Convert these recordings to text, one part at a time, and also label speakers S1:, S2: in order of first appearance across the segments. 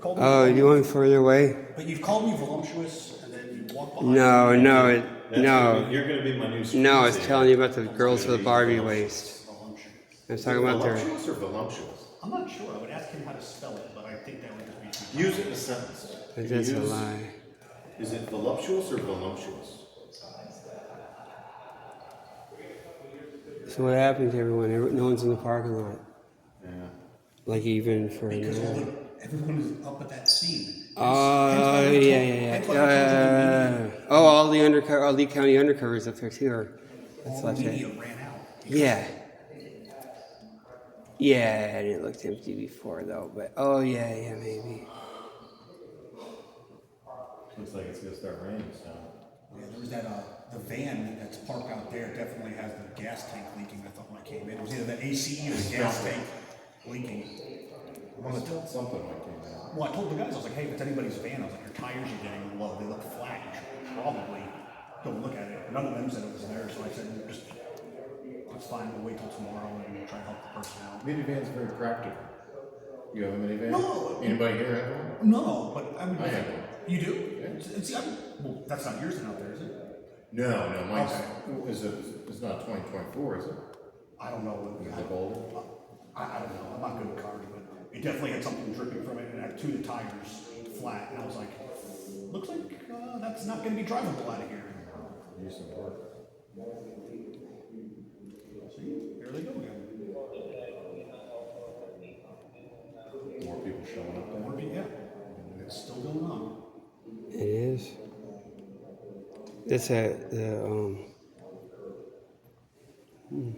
S1: Called me
S2: Oh,
S1: voluptuous.
S2: you went further away?
S1: But you've called me voluptuous, and then you walk behind.
S2: No, no, it,
S3: That's gonna be-
S2: no.
S3: You're gonna be my new.
S2: No, I was
S3: screensaver.
S2: telling you about the girls with the Barbie waist.
S1: Voluptuous.
S2: I was talking about their.
S3: Voluptuous or voluptuous?
S1: I'm not sure. I would ask him how to spell it, but I think that would just be.
S3: Use it in a sentence.
S2: That's a
S3: Use-
S2: lie.
S3: Is it voluptuous or voluptuous?
S2: So what happened to everyone? Every- No one's in the parking lot.
S3: Yeah.
S2: Like even for an
S1: Because all
S2: hour.
S1: the, everyone is up at that scene.
S2: Oh, yeah, yeah, yeah. Uh, oh, all the undercover, all Lee County undercovers up there too. Are,
S1: All
S2: that's
S1: the
S2: left
S1: media
S2: hand.
S1: ran out.
S2: Yeah. Yeah, and it looked empty before though, but oh yeah, yeah, maybe.
S3: Looks like it's gonna start raining soon.
S1: Yeah, there was that, uh, the van that's parked out there definitely has the gas tank leaking. I thought when I came in, it was either the ACE or the gas tank leaking.
S3: I smelled something like that.
S1: Well, I told the guys, I was like, hey, if it's anybody's van, I was like, your tires are getting low, they look flat, you should probably go look at it. None of them said it was there, so I said, "Well, just, let's find, we'll wait till tomorrow and we'll try to help the person out.
S3: Minivan's very practical. You have a minivan?
S1: No.
S3: Anybody here have one?
S1: No, but I would.
S3: I have one.
S1: You do? It's- it's- I'm- well, that's not yours out there, is it?
S3: No, no, mine's,
S1: Okay.
S3: is it, it's not twenty twenty-four, is it?
S1: I don't know. what-
S3: Is it older?
S1: I, I don't know, I'm not good at cars, but it definitely had something dripping from it, and I had two of the tires flat, and I was like, looks like, uh, that's not gonna be drivable out of here.
S3: Do some work.
S1: See, there they go again.
S3: More people showing up.
S1: Or be, yeah, it's still going on.
S2: It is. That's a the um. hmm.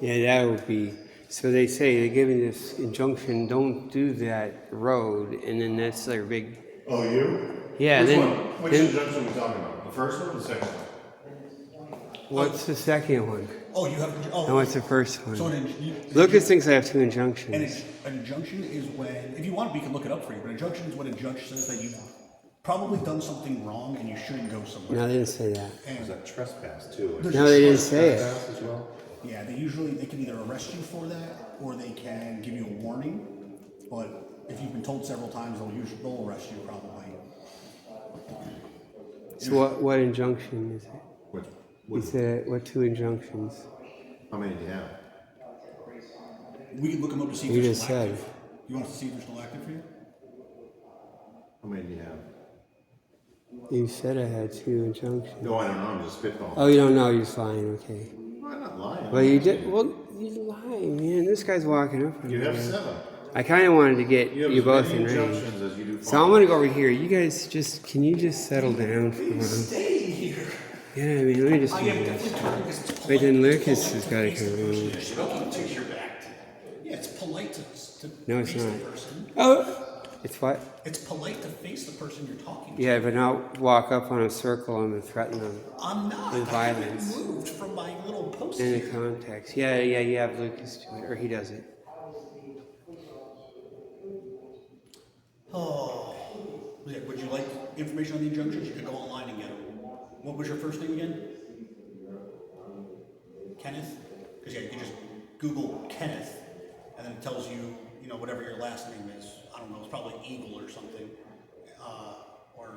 S2: Yeah, that would be. So they say they're giving this injunction: don't do that road, and then that's their big.
S3: Oh, you?
S2: Yeah,
S3: Which
S2: then-
S3: one? Which
S2: then-
S3: injunction are we talking about? The first one or the second one?
S2: What's the second one?
S1: Oh, you have,
S2: And
S1: oh,
S2: what's the first
S1: so
S2: one?
S1: an, inj-
S2: Lucas thinks I have two
S1: an,
S2: injunctions.
S1: inj- an injunction is when, if you want, we can look it up for you, but an injunction is when a judge says that you've probably done something wrong and you shouldn't go somewhere.
S2: No, they didn't say that.
S3: Is
S1: And,
S3: that trespass too? Is
S2: No, they didn't say it.
S3: Trespass as well?
S1: yeah, they usually, they can either arrest you for that, or they can give you a warning, but if you've been told several times, they'll usually, they'll arrest you probably.
S2: So what what injunction is it?
S3: Which,
S2: He said what two injunctions?
S3: how many do you have?
S1: We can look them up to see
S2: You
S1: if they're
S2: just
S1: still
S2: said.
S1: active. You want us to see if they're still active for you?
S3: How many do you have?
S2: You said I had two injunctions.
S3: No, I don't know, I'm just spitballing.
S2: Oh, you don't know. You're fine. Okay.
S3: I'm not lying.
S2: Well, you did. Well, you lying, man. This guy's walking up. on
S3: You
S2: me,
S3: have
S2: man.
S3: seven.
S2: I kind of wanted to get
S3: You
S2: you,
S3: have as
S2: both
S3: many
S2: in range.
S3: injunctions as you do.
S2: So I'm gonna go over here. You guys just can you just settle down for a moment?
S1: Stay here.
S2: Yeah, I mean, let me just do this. But then Lucas has got to come.
S1: You're supposed to take your back. Yeah, it's polite to, to
S2: No, it's
S1: face the
S2: not.
S1: person.
S2: Oh, it's what?
S1: It's polite to face the person you're talking to.
S2: Yeah, but not walk up on a circle and threaten them
S1: I'm not.
S2: With
S1: I haven't
S2: violence.
S1: moved from my little post
S2: in
S1: here.
S2: the context. Yeah, yeah, you have Lucas do it, or he does it.
S1: Oh. Yeah, would you like information on the injunctions? You could go online and get them. What was your first name again? Kenneth? Because yeah, you can just Google Kenneth, and then it tells you, you know, whatever your last name is. I don't know. It's probably Eagle or something, uh, or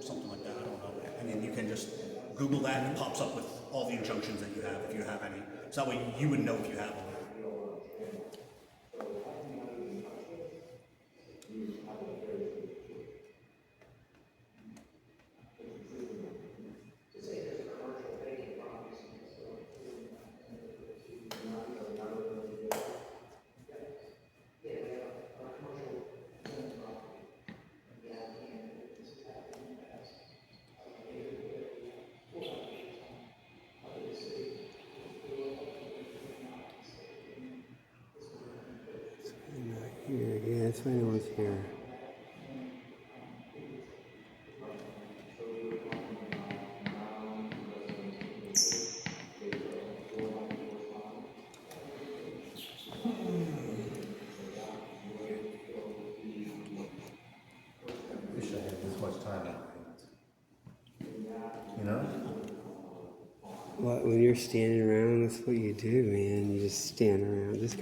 S1: something like that. I don't know. And then you can just Google that, and it pops up with all the injunctions that you have, if you have any. So that way you would know if you have them.
S2: Not here. Yeah, that's why no one's here.
S3: Wish I had this much time. You know?
S2: What, when you're standing around, that's what you do, man. You just stand around. This